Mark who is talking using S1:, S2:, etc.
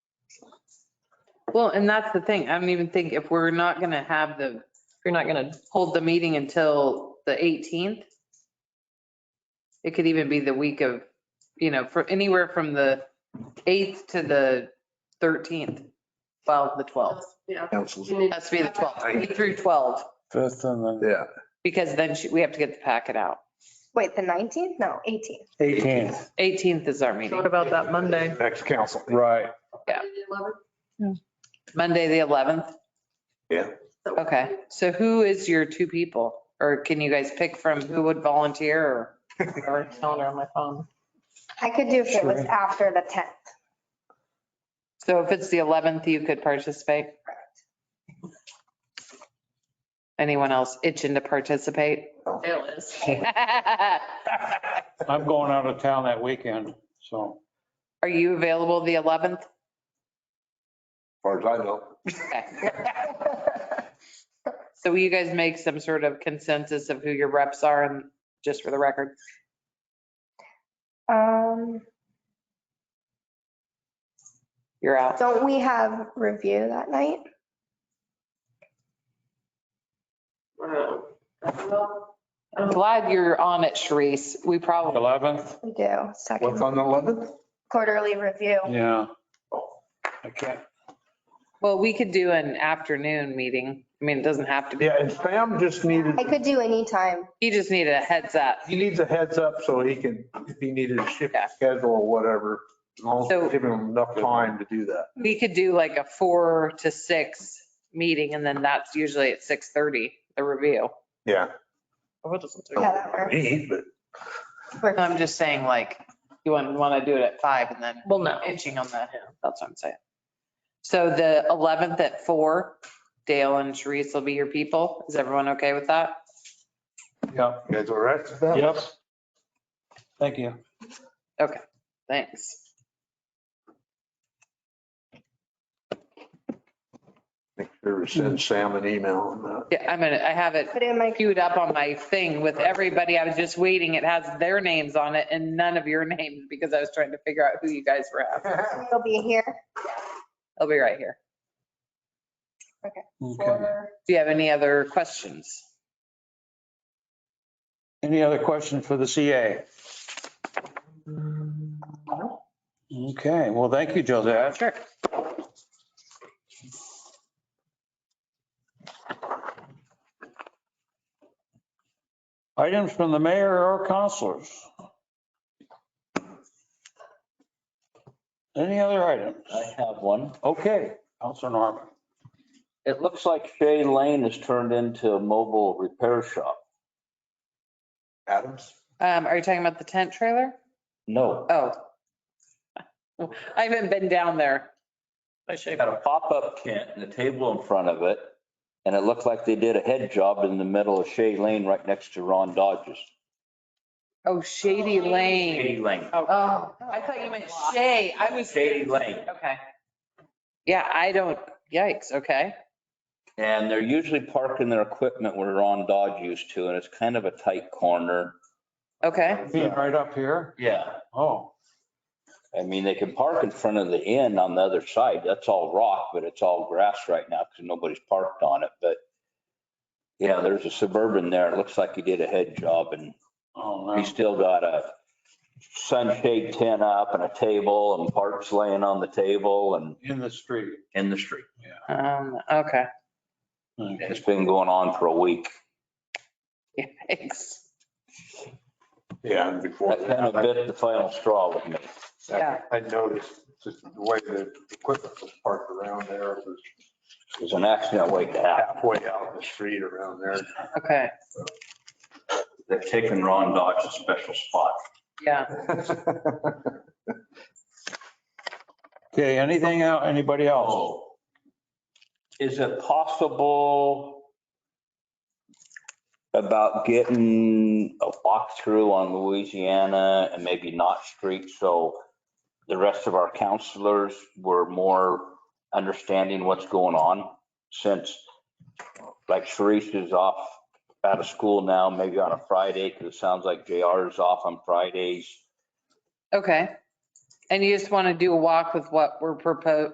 S1: Well, and that's the thing. I don't even think if we're not going to have the,
S2: You're not gonna,
S1: hold the meeting until the 18th. It could even be the week of, you know, for anywhere from the 8th to the 13th, 12, the 12th.
S3: Yeah.
S4: councils.
S3: And it-
S1: Has to be the 12th, 8 through 12,
S5: Fifth and then
S4: Yeah.
S1: because then she- we have to get the packet out.
S6: Wait, the 19th? No, 18th.
S5: 18th,
S1: 18th is our meeting,
S2: what about that Monday?
S4: Next council.
S5: right.
S1: Yeah.
S3: Eleven.
S1: Monday, the 11th.
S3: So-
S1: Okay, so who is your two people? Or can you guys pick from who would volunteer or?
S2: Or Calendar on my phone.
S6: I could do if it was
S5: Sure.
S6: after the 10th.
S1: So if it's the 11th, you could participate? Anyone else itching to participate?
S2: It is.
S5: I'm going out of town that weekend, so.
S1: Are you available the 11th?
S4: Far as I know.
S1: Okay. So will you guys make some sort of consensus of who your reps are and just for the record?
S6: Um,
S1: You're out.
S6: don't we have review that night?
S3: Wow. Well,
S1: I'm glad you're on it, Sharice. We probably,
S5: 11th?
S6: We do,
S4: What's
S6: second
S4: on the 11th?
S6: quarterly review.
S5: Yeah. I can't,
S1: well, we could do an afternoon meeting. I mean, it doesn't have to be.
S4: Yeah, and Sam just needed,
S6: I could do any time.
S1: You just need a heads up.
S4: he needs a heads up so he can, if he needed to shift
S1: Yeah.
S4: his schedule or whatever, as long as
S1: So-
S4: we're giving him enough time to do that.
S1: We could do like a four to six meeting and then that's usually at 6:30, the review.
S4: Yeah.
S2: Oh, it doesn't do-
S6: Yeah, that works.
S4: Me, but
S6: Works.
S1: I'm just saying like, you wouldn't want to do it at five and then
S2: Well, no.
S1: inching on the, that's what I'm saying. So the 11th at four, Dale and Sharice will be your people. Is everyone okay with that?
S5: yeah,
S4: you guys all right with that?
S5: yep. Thank you.
S1: Thanks.
S4: Make sure to send Sam an email on that.
S1: Yeah, I'm gonna, I have it
S6: Put in my,
S1: queued up on my thing with everybody. I was just waiting. It has their names on it and none of your names because I was trying to figure out who you guys were after.
S6: it'll be here
S1: I'll be right here.
S5: Okay.
S6: for,
S1: Do you have any other questions?
S5: Any other questions for the CA? Okay, well, thank you, Joseph.
S1: Sure.
S5: Items from the mayor or counselors? Any other items?
S7: I have one.
S5: Okay, Counselor Norman.
S7: It looks like Shea Lane is turned into a mobile repair shop.
S4: Adams?
S1: Um, are you talking about the tent trailer?
S7: No,
S1: Oh. I haven't been down there.
S2: I should-
S7: they got a pop-up tent and a table in front of it. And it looked like they did a head job in the middle of Shea Lane right next to Ron Dodge's.
S1: Oh, Shady Lane.
S7: Shea Lane.
S1: Oh, I thought you meant Shay. I was.
S7: Shady Lane.
S1: Okay. Yeah, I don't, yikes, okay.
S7: And they're usually parking their equipment where Ron Dodge used to, and it's kind of a tight corner.
S1: Okay,
S5: Being right up here?
S7: Yeah.
S5: Oh,
S7: I mean, they can park in front of the inn on the other side. That's all rock, but it's all grass right now because nobody's parked on it, but yeah, there's a suburban there. It looks like he did a head job and
S5: oh, no.
S7: he's still got a sunshade tent up and a table and parts laying on the table and
S5: in the street.
S7: in the street.
S1: um, okay,
S5: Okay.
S7: It's been going on for a week.
S1: yikes.
S4: Yeah, and before
S7: That kind of bit the final straw with me.
S1: Yeah.
S4: I noticed just the way the equipment was parked around there, it was
S7: It was an accident waiting to happen.
S4: halfway out the street around there.
S1: Okay,
S7: They're taking Ron Dodge a special spot.
S1: yeah.
S5: Okay, anything out, anybody else?
S7: Oh. Is it possible about getting a walkthrough on Louisiana and maybe Knott Street? So the rest of our counselors were more understanding what's going on since like Sharice is off out of school now, maybe on a Friday, because it sounds like JR is off on Fridays.
S1: Okay. And you just want to do a walk with what we're proposing,